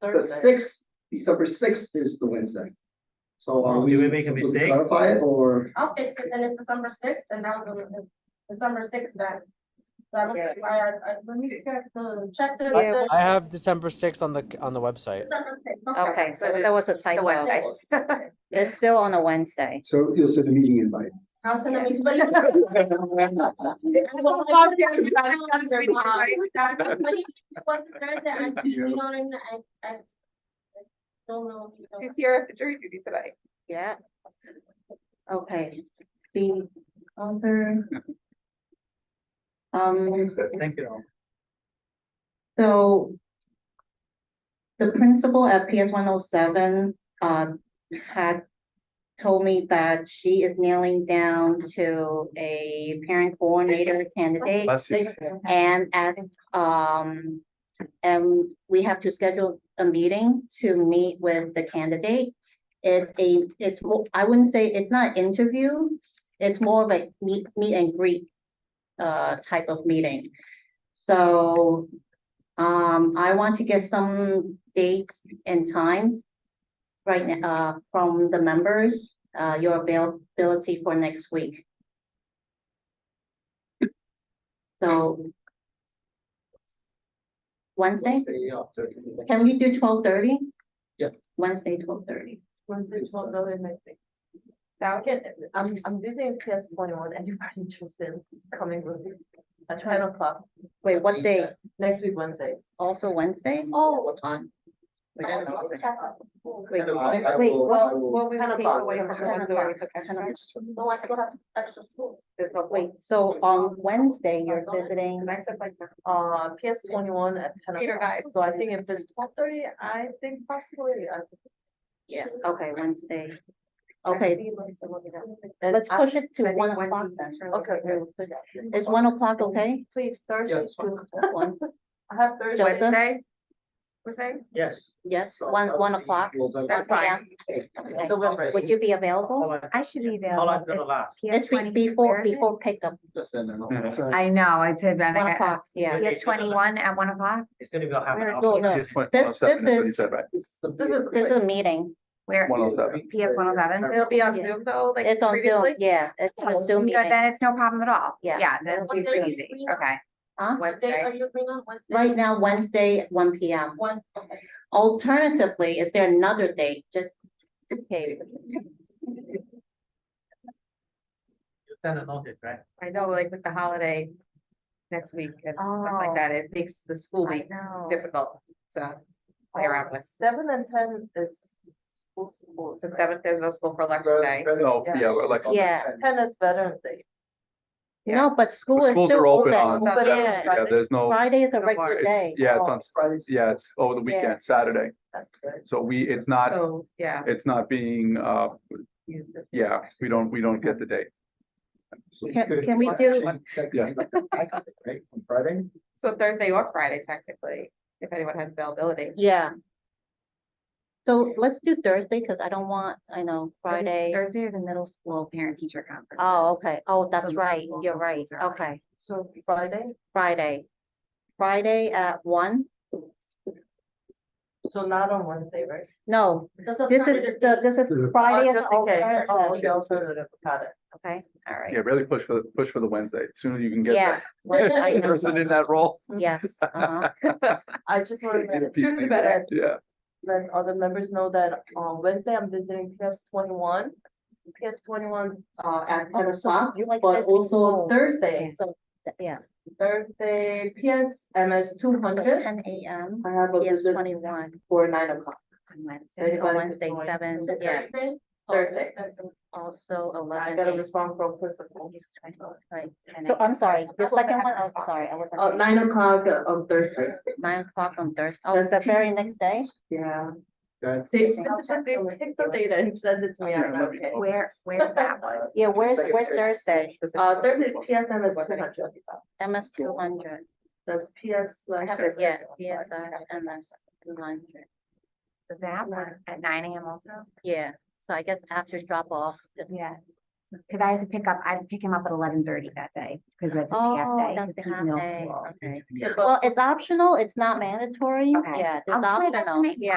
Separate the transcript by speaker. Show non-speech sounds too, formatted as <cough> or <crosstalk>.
Speaker 1: The sixth, December sixth is the Wednesday. So are
Speaker 2: Oh,
Speaker 1: we?
Speaker 2: did we make a
Speaker 1: supposed to
Speaker 2: mistake?
Speaker 1: Clarify it or,
Speaker 3: I'll fix it, then it's December sixth, and now it's December sixth then. That was why I, I, let me check the, check the.
Speaker 4: I-
Speaker 3: the-
Speaker 4: I have December sixth on the, on the website.
Speaker 3: December 6th,
Speaker 5: Okay, so that was a typo.
Speaker 3: Wednesday.
Speaker 5: It's still on a Wednesday.
Speaker 1: so you'll send a meeting invite?
Speaker 3: I'll send them, but.
Speaker 5: <laughs>
Speaker 6: <laughs> <laughs>
Speaker 3: What's Thursday, I, you know, what I mean? I, I. I Don't know. you know.
Speaker 7: She's here after jury duty today.
Speaker 5: Yeah. Okay. The other. Um,
Speaker 2: Thank you.
Speaker 5: so. The principal at PS one oh seven, uh, had told me that she is nailing down to a parent coordinator candidate.
Speaker 2: Bless you.
Speaker 5: And as, um, and we have to schedule a meeting to meet with the candidate. It's a, it's, mo- I wouldn't say, it's not interview, it's more of a meet, meet and greet uh, type of meeting. So, um, I want to get some dates and times right now, uh, from the members, uh, your availability for next week. So Wednesday? Can we do twelve thirty?
Speaker 2: Yeah.
Speaker 5: Wednesday, twelve thirty.
Speaker 6: Wednesday, twelve thirty, next week. Now, again, I'm, I'm visiting PS twenty-one, <laughs> anybody interested in coming with me? At ten o'clock,
Speaker 5: Wait, what day?
Speaker 6: next week, Wednesday.
Speaker 5: Also Wednesday?
Speaker 6: Oh.
Speaker 5: What time? Wait,
Speaker 6: I don't know.
Speaker 5: wait,
Speaker 2: I
Speaker 5: wait,
Speaker 2: will- I
Speaker 6: Well,
Speaker 2: will-
Speaker 6: well, we
Speaker 7: Ten
Speaker 6: take
Speaker 7: o'clock.
Speaker 6: away
Speaker 7: Ten
Speaker 6: from
Speaker 7: o'clock.
Speaker 6: Wednesday, we took
Speaker 5: Ten
Speaker 6: extra.
Speaker 3: No, I still have extra school.
Speaker 5: wait, so on Wednesday, you're visiting,
Speaker 6: Uh, PS twenty-one at ten
Speaker 7: Peter
Speaker 6: o'clock,
Speaker 7: guys.
Speaker 6: so I think if it's twelve thirty, I think possibly, uh, I.
Speaker 5: yeah, okay, Wednesday. Okay,
Speaker 6: and
Speaker 5: let's
Speaker 6: I-
Speaker 5: push it to one o'clock then.
Speaker 6: Okay, good.
Speaker 5: Is one o'clock okay?
Speaker 6: Please,
Speaker 2: Yeah,
Speaker 6: Thursday,
Speaker 2: it's fine.
Speaker 6: too.
Speaker 5: One,
Speaker 6: I have Thursday.
Speaker 5: Joseph?
Speaker 7: Wednesday? We're saying?
Speaker 2: Yes.
Speaker 8: <laughs>
Speaker 5: yes, one, one o'clock?
Speaker 2: November.
Speaker 7: That's fine.
Speaker 5: Okay.
Speaker 2: November.
Speaker 5: Would you be available?
Speaker 2: Hold on,
Speaker 9: I should be there.
Speaker 2: How long's it gonna last?
Speaker 5: This week before, before pickup,
Speaker 2: just then, and I'll-
Speaker 1: That's right.
Speaker 9: I know, I said that.
Speaker 5: one
Speaker 9: I-
Speaker 5: o'clock, yeah.
Speaker 9: Yes, twenty-one at one o'clock.
Speaker 2: It's gonna be a half an
Speaker 5: Where's
Speaker 2: hour.
Speaker 5: Lola? uh, This, this is,
Speaker 1: This
Speaker 6: This is-
Speaker 5: this is a meeting.
Speaker 9: Where,
Speaker 8: One oh seven.
Speaker 9: PS one oh seven?
Speaker 7: It'll be on
Speaker 5: Yeah.
Speaker 7: Zoom though, like
Speaker 5: It's on Zoom,
Speaker 7: previously.
Speaker 5: yeah, it's
Speaker 9: Oh,
Speaker 5: a Zoom meeting.
Speaker 9: Then it's no problem at all.
Speaker 5: Yeah.
Speaker 9: Yeah, that's
Speaker 3: What day
Speaker 9: usually
Speaker 3: are you
Speaker 9: easy.
Speaker 3: free on?
Speaker 9: Okay.
Speaker 5: Huh?
Speaker 3: What day
Speaker 7: Wednesday.
Speaker 3: are you bringing on Wednesday?
Speaker 5: Right now, Wednesday, at one P M.
Speaker 3: One, okay.
Speaker 5: Alternatively, is there another date? Just, okay,
Speaker 2: You send a notice, right?
Speaker 7: I know, like with the holiday next week and stuff
Speaker 9: Oh.
Speaker 7: like that, it makes the school
Speaker 9: I
Speaker 7: week
Speaker 9: know.
Speaker 7: difficult to play around with.
Speaker 6: Seven and ten is. school support,
Speaker 7: The
Speaker 6: right?
Speaker 7: seventh is no school for
Speaker 1: uh,
Speaker 7: election day.
Speaker 8: No, yeah, we're like,
Speaker 5: yeah.
Speaker 6: Ten is Veterans Day.
Speaker 5: No, but school
Speaker 8: the
Speaker 5: is
Speaker 8: schools are
Speaker 5: still
Speaker 8: open on,
Speaker 5: open.
Speaker 7: That's
Speaker 6: But
Speaker 7: what I'm
Speaker 6: yeah.
Speaker 7: trying
Speaker 8: yeah,
Speaker 7: to-
Speaker 8: there's no,
Speaker 5: Friday is a
Speaker 7: No
Speaker 5: regular
Speaker 7: bars.
Speaker 5: day.
Speaker 8: it's, yeah,
Speaker 6: Oh,
Speaker 8: it's on, s-
Speaker 6: Fridays.
Speaker 8: yeah, it's over
Speaker 5: Yeah.
Speaker 8: the
Speaker 5: Oh.
Speaker 8: weekend, Saturday.
Speaker 6: That's good.
Speaker 8: So we, it's not,
Speaker 7: So, yeah,
Speaker 8: it's not being, uh,
Speaker 7: use this.
Speaker 8: yeah, we don't, we don't get the date.
Speaker 1: So you
Speaker 5: Can-
Speaker 1: could-
Speaker 5: can we do-
Speaker 8: Yeah.
Speaker 1: Right, on Friday?
Speaker 7: So Thursday or Friday technically, if anyone has availability.
Speaker 5: Yeah. So let's do Thursday, because I don't want, I know, Friday.
Speaker 9: Thursday is the middle school parent teacher conference.
Speaker 5: Oh, okay. Oh, that's
Speaker 9: So
Speaker 5: right.
Speaker 9: we'll-
Speaker 5: You're right.
Speaker 9: sorry.
Speaker 5: Okay,
Speaker 6: So Friday,
Speaker 5: Friday. Friday at one?
Speaker 6: so not on Wednesday, right?
Speaker 5: No,
Speaker 3: This is.
Speaker 5: this is, the this is Friday as an
Speaker 6: Oh,
Speaker 5: alternative.
Speaker 6: okay, alternative, got it.
Speaker 5: Okay, all right.
Speaker 8: Yeah, really push for, the push for the Wednesday, as soon as you can get
Speaker 5: Yeah,
Speaker 8: that <laughs> person in that role.
Speaker 5: <laughs> yes, uh-huh.
Speaker 8: <laughs>
Speaker 6: I just want to
Speaker 8: People
Speaker 7: Sooner the
Speaker 8: think
Speaker 7: better.
Speaker 8: that, <laughs> Yeah,
Speaker 6: let other members know that on Wednesday, I'm visiting PS twenty-one. PS twenty-one, uh, at
Speaker 5: Oh,
Speaker 6: ten o'clock,
Speaker 5: You like
Speaker 6: but
Speaker 5: this
Speaker 6: also
Speaker 5: school.
Speaker 6: Thursday,
Speaker 5: So, yeah,
Speaker 6: Thursday, PS MS two
Speaker 5: so
Speaker 6: hundred.
Speaker 5: ten AM,
Speaker 6: I have a
Speaker 5: yes,
Speaker 6: visit
Speaker 5: twenty-one.
Speaker 6: for nine o'clock.
Speaker 5: on Wednesday,
Speaker 6: Anybody
Speaker 5: on
Speaker 6: can
Speaker 5: Wednesday,
Speaker 6: join.
Speaker 5: seven,
Speaker 6: Is it
Speaker 5: yeah,
Speaker 3: Thursday.
Speaker 6: Thursday.
Speaker 5: also
Speaker 6: I
Speaker 5: eleven.
Speaker 6: got a
Speaker 5: eight,
Speaker 6: response from principals.
Speaker 5: right, 10 So I'm sorry, the second one, I'm sorry, I was.
Speaker 6: Uh, nine o'clock uh, on Thursday,
Speaker 5: Oh, Nine o'clock on Thursday, oh, it's the very next day?
Speaker 6: yeah.
Speaker 1: That's.
Speaker 6: They specifically picked the data and sent it to me, I'm like,
Speaker 8: Yeah, let me-
Speaker 6: okay.
Speaker 9: Where, where's that one?
Speaker 7: <laughs>
Speaker 5: Yeah, where's,
Speaker 1: Second
Speaker 5: where's
Speaker 1: day.
Speaker 5: Thursday?
Speaker 6: Uh, Thursday is PSM is two hundred.
Speaker 5: MS two hundred.
Speaker 6: That's PS. like, Thursday.
Speaker 5: Yeah, yes, uh, MS two hundred.
Speaker 9: That one at nine AM also?
Speaker 5: Yeah, so I guess after drop off. if-
Speaker 9: Yeah. Cause I have to pick up, I have to pick him up at eleven thirty that day, cause that's a half
Speaker 5: Oh,
Speaker 9: day.
Speaker 5: that's
Speaker 9: 'cause
Speaker 5: the
Speaker 9: he's
Speaker 5: half
Speaker 9: middle
Speaker 5: day,
Speaker 9: school.
Speaker 5: okay.
Speaker 6: Yeah, but-
Speaker 5: Well, it's optional, it's not mandatory,
Speaker 9: Okay.
Speaker 5: yeah, it's
Speaker 9: I'll try best to
Speaker 5: optional,
Speaker 9: make
Speaker 5: yeah.